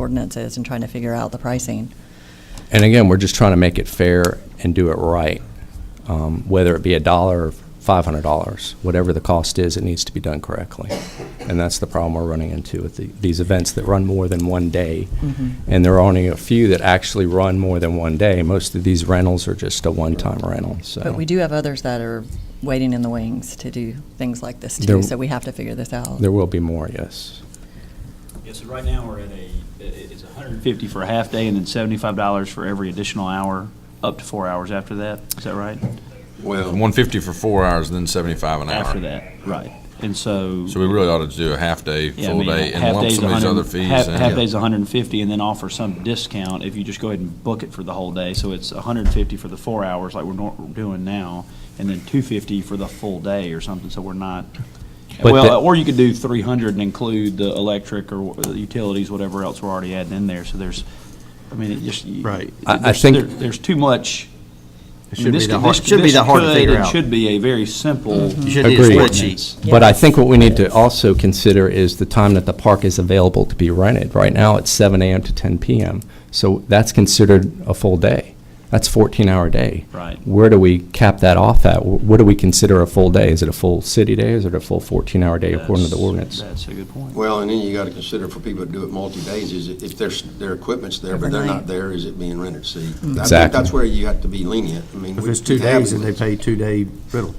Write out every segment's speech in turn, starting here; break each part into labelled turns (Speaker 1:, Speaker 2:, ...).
Speaker 1: ordinance is and trying to figure out the pricing.
Speaker 2: And again, we're just trying to make it fair and do it right, um, whether it be a dollar or five hundred dollars, whatever the cost is, it needs to be done correctly. And that's the problem we're running into with the, these events that run more than one day.
Speaker 3: Mm-hmm.
Speaker 2: And there are only a few that actually run more than one day. Most of these rentals are just a one-time rental, so.
Speaker 1: But we do have others that are waiting in the wings to do things like this too,
Speaker 2: There-
Speaker 1: so we have to figure this out.
Speaker 2: There will be more, yes.
Speaker 3: Yeah, so right now, we're at a, it- it's 150 for a half day and then $75 for every additional hour, up to four hours after that. Is that right?
Speaker 4: Well, 150 for four hours, then 75 an hour.
Speaker 3: After that, right. And so.
Speaker 4: So we really ought to do a half day,
Speaker 3: yeah, I
Speaker 4: full
Speaker 3: mean,
Speaker 4: day,
Speaker 3: half
Speaker 4: and lump
Speaker 3: day's
Speaker 4: some of these
Speaker 3: 100
Speaker 4: other fees.
Speaker 3: Half,
Speaker 4: in.
Speaker 3: half day's 150 and then offer some discount if you just go ahead and book it for the whole day. So it's 150 for the four hours like we're nor- we're doing now, and then 250 for the full day or something. So we're not.
Speaker 2: But the-
Speaker 3: Well, or you could do 300 and include the electric or wh- the utilities, whatever else we're already adding in there. So there's, I mean, it just. you-
Speaker 5: Right.
Speaker 2: I- I
Speaker 3: there's-
Speaker 2: think-
Speaker 3: there- There's too much.
Speaker 5: It
Speaker 3: I mean,
Speaker 5: should be
Speaker 3: this
Speaker 5: the
Speaker 3: could-
Speaker 5: hard,
Speaker 3: this-
Speaker 5: should be
Speaker 3: this
Speaker 5: the hard to
Speaker 3: could
Speaker 5: figure
Speaker 3: and
Speaker 5: out. Mm-hmm.
Speaker 3: Should be a very simple.
Speaker 5: You should need a
Speaker 2: Agreed.
Speaker 5: spreadsheet.
Speaker 2: But I think what we need to also consider is the time that the park is available to be rented. Right now, it's seven AM to ten PM, so that's considered a full day. That's fourteen-hour day.
Speaker 3: Right.
Speaker 2: Where do we cap that off at? Wh- What do we consider a full day? Is it a full city day? Is it a full fourteen-hour day according to the
Speaker 3: That's-
Speaker 2: ordinance?
Speaker 3: That's a good point.
Speaker 6: Well, and then you got to consider for people that do it multi-days, is it- if there's, their equipment's there, but they're
Speaker 1: Overnight.
Speaker 6: not there, is it being rented? See, I think
Speaker 2: Exactly.
Speaker 6: that's where you have to be lenient. I mean.
Speaker 5: If
Speaker 6: we-
Speaker 5: it's two
Speaker 6: we have
Speaker 5: days and they
Speaker 6: these.
Speaker 5: pay two-day rental.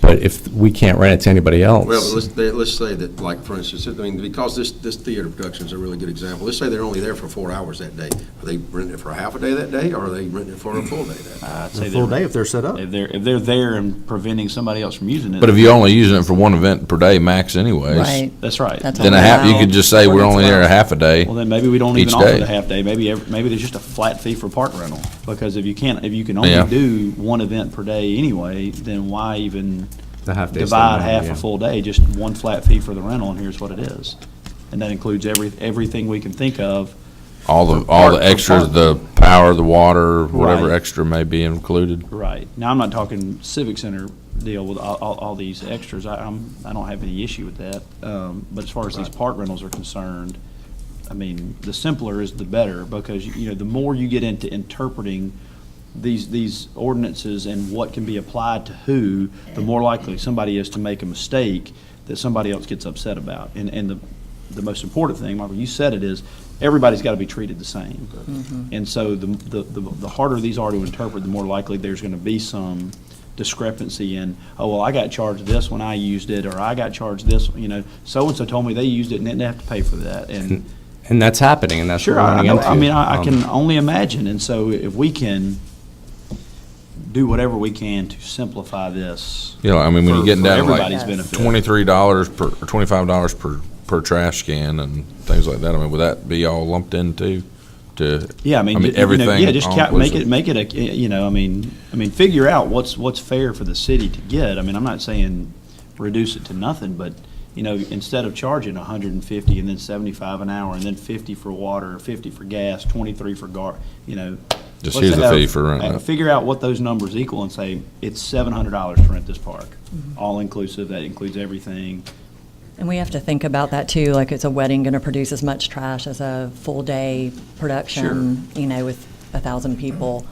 Speaker 2: But if we can't rent it to anybody else.
Speaker 6: Well, but let's, they- let's say that, like, for instance, I mean, because this, this theater production's a really good example. Let's say they're only there for four hours that day. Are they renting it for a half a day that day, or are they renting it for a full day that day?
Speaker 3: I'd
Speaker 5: A
Speaker 3: say
Speaker 5: full
Speaker 3: they're-
Speaker 5: day if they're set up.
Speaker 3: If they're, if they're there and preventing somebody else from using it.
Speaker 4: But if you're only using it for one event per day max anyways.
Speaker 1: Right.
Speaker 3: That's right.
Speaker 1: That's
Speaker 4: Then a half, you could just say we're only there a half a day.
Speaker 3: Well, then maybe we don't even
Speaker 4: Each
Speaker 3: offer
Speaker 4: day.
Speaker 3: the half day. Maybe, ev- maybe there's just a flat fee for park rental. Because if you can't, if you can only
Speaker 4: Yeah.
Speaker 3: do one event per day anyway, then why even
Speaker 2: The half day's
Speaker 3: divide
Speaker 2: the
Speaker 3: half
Speaker 2: minimum,
Speaker 3: a
Speaker 2: yeah.
Speaker 3: full day? Just one flat fee for the rental and here's what it is. And that includes every, everything we can think of.
Speaker 4: All the,
Speaker 3: for
Speaker 4: all
Speaker 3: park-
Speaker 4: the
Speaker 3: for
Speaker 4: extras,
Speaker 3: park.
Speaker 4: the power, the water, whatever
Speaker 3: Right.
Speaker 4: extra may be included.
Speaker 3: Right. Now, I'm not talking civic center deal with all, all, all these extras. I, I'm, I don't have any issue with that. Um, but as far as these park rentals are concerned, I mean, the simpler is the better because, you know, the more you get into interpreting these, these ordinances and what can be applied to who, the more likely somebody is to make a mistake that somebody else gets upset about. And, and the, the most important thing, Michael, you said it, is everybody's got to be treated the same. And so the, the, the the harder these are to interpret, the more likely there's going to be some discrepancy in, oh, well, I got charged this when I used it, or I got charged this, you know, so-and-so told me they used it and didn't have to pay for that. And
Speaker 2: And that's happening, and that's what
Speaker 3: Sure,
Speaker 2: we're
Speaker 3: I, I
Speaker 2: running
Speaker 3: know-
Speaker 2: into.
Speaker 3: I mean, I, I
Speaker 2: Um,
Speaker 3: can only imagine, and so if we can do whatever we can to simplify this.
Speaker 4: You know, I mean, when you're
Speaker 3: for-
Speaker 4: getting
Speaker 3: for
Speaker 4: down to
Speaker 3: everybody's
Speaker 4: like
Speaker 3: benefit.
Speaker 4: twenty-three dollars per, or twenty-five dollars per, per trash can and things like that, I mean, would that be all lumped into, to?
Speaker 3: Yeah, I mean, you know,
Speaker 4: everything
Speaker 3: yeah, just ca- make
Speaker 4: all-inclusive?
Speaker 3: it, make it a, you know, I mean, I mean, figure out what's, what's fair for the city to get. I mean, I'm not saying reduce it to nothing, but, you know, instead of charging hundred and fifty and then seventy-five an hour and then fifty for water, fifty for gas, twenty-three for gar, you know.
Speaker 4: Just
Speaker 3: let's
Speaker 4: here's the
Speaker 3: have-
Speaker 4: fee for rent.
Speaker 3: uh, Figure out what those numbers equal and say, it's seven hundred dollars to rent this park, all-inclusive, that includes everything.
Speaker 1: And we have to think about that too, like is a wedding going to produce as much trash as a full day production, you know, with a thousand people?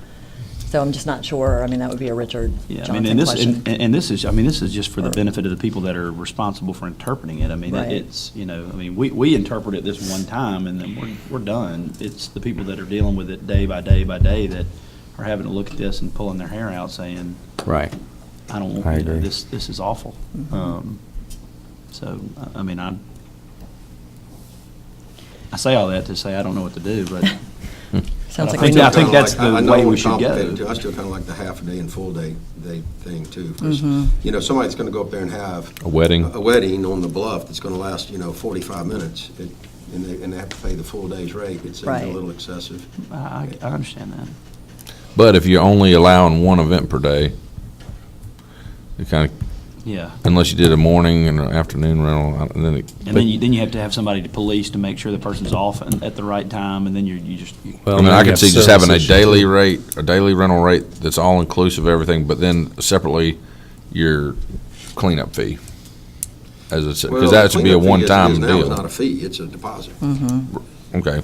Speaker 1: So I'm just not sure. I mean, that would be a Richard
Speaker 3: Yeah, I mean,
Speaker 1: Johnson
Speaker 3: and this,
Speaker 1: question.
Speaker 3: and, and this is, I mean, this is just for the
Speaker 1: Or-
Speaker 3: benefit of the people that are responsible for interpreting it. I mean,
Speaker 1: Right.
Speaker 3: it's, you know, I mean, we, we interpret it this one time and then we're, we're done. It's the people that are dealing with it day by day by day that are having to look at this and pulling their hair out saying,
Speaker 2: Right.
Speaker 3: I don't
Speaker 2: I
Speaker 3: want, you know,
Speaker 2: agree.
Speaker 3: this, this is awful.
Speaker 1: Mm-hmm.
Speaker 3: Um, So, I- I mean, I, I say all that to say I don't know what to do, but
Speaker 1: Sounds
Speaker 3: I
Speaker 1: like we
Speaker 3: think- I
Speaker 1: need
Speaker 3: think that's the
Speaker 6: I know
Speaker 3: way we
Speaker 6: we're
Speaker 3: should go.
Speaker 6: complicated, too. I still kind of like the half a day and full day, day thing too. 'cause, You know, somebody's going to go up there and have
Speaker 4: A wedding.
Speaker 6: a wedding on the bluff that's going to last, you know, 45 minutes, it- and they, and they have to pay the full day's rate, it seems a
Speaker 1: Right.
Speaker 6: little excessive.
Speaker 3: I, I I understand that.
Speaker 4: But if you're only allowing one event per day, it kind of,
Speaker 3: Yeah.
Speaker 4: unless you did a morning and an afternoon rental, I- then it.
Speaker 3: And then you, then you have to have somebody to police to make sure the person's off and at the right time, and then you're, you just,
Speaker 4: I mean, I could see just having a daily rate, a daily rental rate that's all inclusive of everything, but then separately, your cleanup fee. As I said,
Speaker 6: Well,
Speaker 4: because that should be a
Speaker 6: cleanup fee as it is
Speaker 4: one-time
Speaker 6: now is not
Speaker 4: deal.
Speaker 6: a fee, it's a deposit.
Speaker 4: Okay.